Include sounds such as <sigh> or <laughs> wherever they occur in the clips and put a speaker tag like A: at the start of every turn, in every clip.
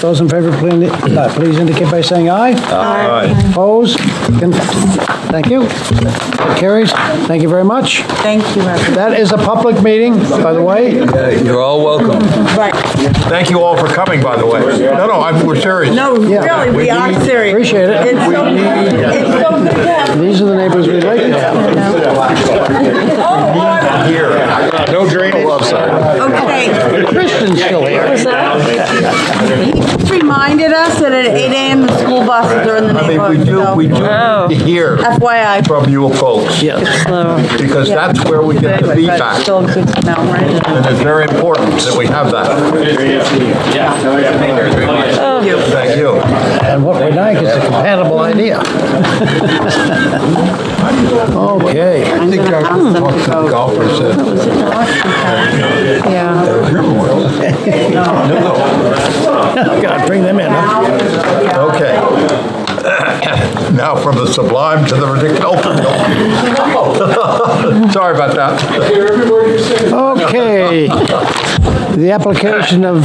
A: Those in favor, please uh, please indicate by saying aye.
B: Aye.
A: Opposed? Con- Thank you. That Carries. Thank you very much.
C: Thank you, everyone.
A: That is a public meeting, by the way.
D: You're all welcome.
C: Right.
B: Thank you all for coming, by the way. No, no, I'm, we're serious.
C: No, really, we are serious.
A: Appreciate it.
C: It's so, it's so good to have.
A: These are the neighbors we like.
C: Oh, oh,
B: Here. No drainage. Oh, I'm sorry.
C: okay.
A: Kristen's still here.
C: He just reminded us that at 8 AM the school buses are in the
B: I mean, we
C: neighborhood,
B: do, we
C: so
B: do hear
C: FYI.
B: from you folks, because that's where we get the
C: Anyway, but
B: feedback.
C: still good to know, right?
B: And it's very important that we have that.
C: Thank you.
B: Thank you.
A: And what we like is a compatible idea. Okay.
B: I think I talked to the golfers. uh,
C: Yeah.
A: Gotta bring them in, huh?
B: Okay. <coughs> Now from the sublime to the ridiculous. <laughs> Sorry about that.
A: Okay. The application of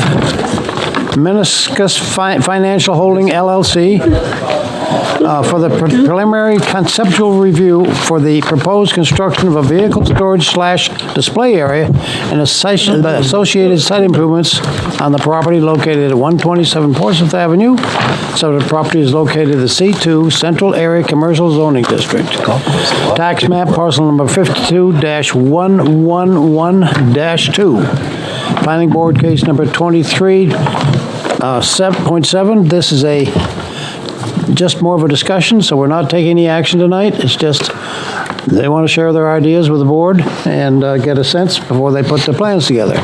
A: Meniscus Fi- Financial Holding LLC uh, for the pre- preliminary conceptual review for the proposed construction of a vehicle storage slash display area and associ- the associated site improvements on the property located at 127 Portsmouth Avenue. So the property is located in the C2 Central Area Commercial Zoning District. Tax map parcel number 52-111-2. Planning Board case number uh, 23, uh, 7.7. This is a, just more of a discussion, so we're not taking any action tonight. It's just, they want to share their ideas with the board and uh, get a sense before they put the plans together.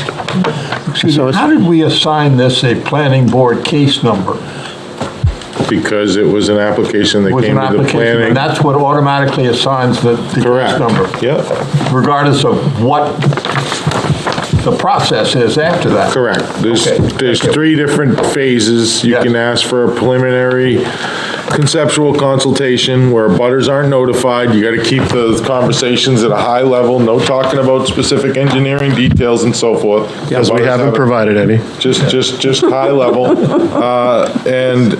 A: So it's-
B: How did we assign this a planning board case number?
E: Because it was an application that
B: With
E: came
B: an
E: to the
B: application, and
E: planning.
B: that's what automatically assigns the, the case
E: Correct.
B: number.
E: Yep,
B: Regardless of what the process is after that.
E: correct. There's,
B: Okay,
E: there's
B: thank you.
E: three different phases. You
B: Yes.
E: can ask for a preliminary conceptual consultation where butters aren't notified. You gotta keep the conversations at a high level, no talking about specific engineering details and so forth. Because we haven't provided any. Just, just, just high level. Uh, And,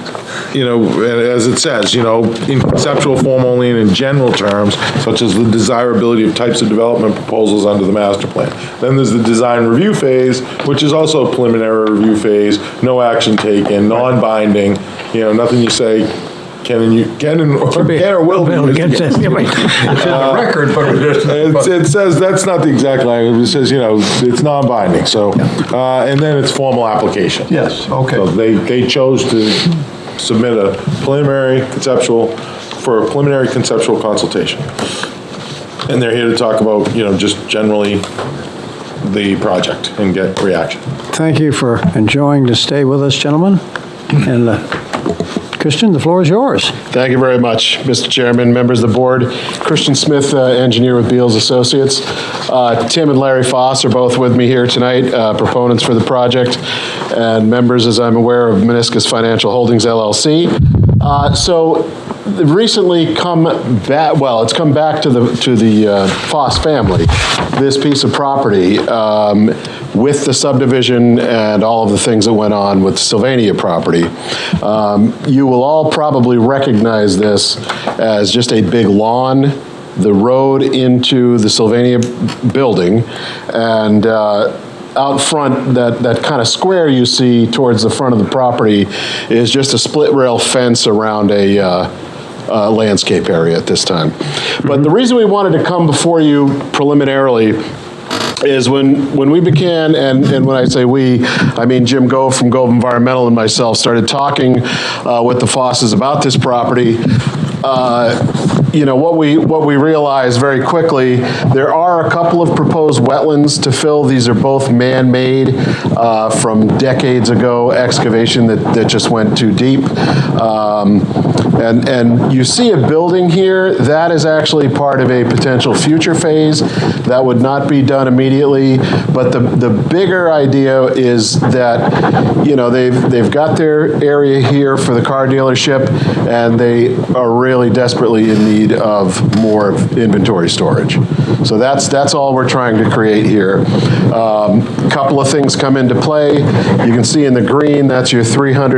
E: you know, and as it says, you know, in conceptual form only and in general terms, such as the desirability of types of development proposals under the master plan. Then there's the design review phase, which is also a preliminary review phase, no action taken, non-binding, you know, nothing you say can and you, can and, or can or will be. used
A: <laughs>
E: against you.
B: It's in the record, but it is-
E: It's-
B: but-
E: It says, that's not the exact language, it says, you know, it's non-binding, so, uh, and then it's formal application.
B: Yes, okay.
E: So they, they chose to submit a preliminary conceptual, for a preliminary conceptual consultation. And they're here to talk about, you know, just generally the project and get reaction.
A: Thank you for enjoying to stay with us, gentlemen. And uh, Christian, the floor is yours.
F: Thank you very much, Mr. Chairman, members of the board. Christian Smith, uh, engineer with Beals Associates. Uh, Tim and Larry Foss are both with me here tonight, uh, proponents for the project, and members, as I'm aware, of Meniscus Financial Holdings LLC. Uh, So the- recently come back, well, it's come back to the, to the uh, Foss family, this piece of property, um, with the subdivision and all of the things that went on with Sylvania property. Um, You will all probably recognize this as just a big lawn, the road into the Sylvania building, and uh, out front, that, that kind of square you see towards the front of the property is just a split rail fence around a, uh, uh, landscape area at this time. But the reason we wanted to come before you preliminarily is when, when we began, and, and when I say we, I mean Jim Gove from Gove Environmental and myself started talking uh, with the Fosses about this property, uh, you know, what we, what we realized very quickly, there are a couple of proposed wetlands to fill. These are both man-made uh, from decades ago excavation that, that just went too deep. Um, And, and you see a building here, that is actually part of a potential future phase. That would not be done immediately, but the, the bigger idea is that, you know, they've, they've got their area here for the car dealership, and they are really desperately in need of more inventory storage. So that's, that's all we're trying to create here. Um, Couple of things come into play. You can see in the green, that's your 300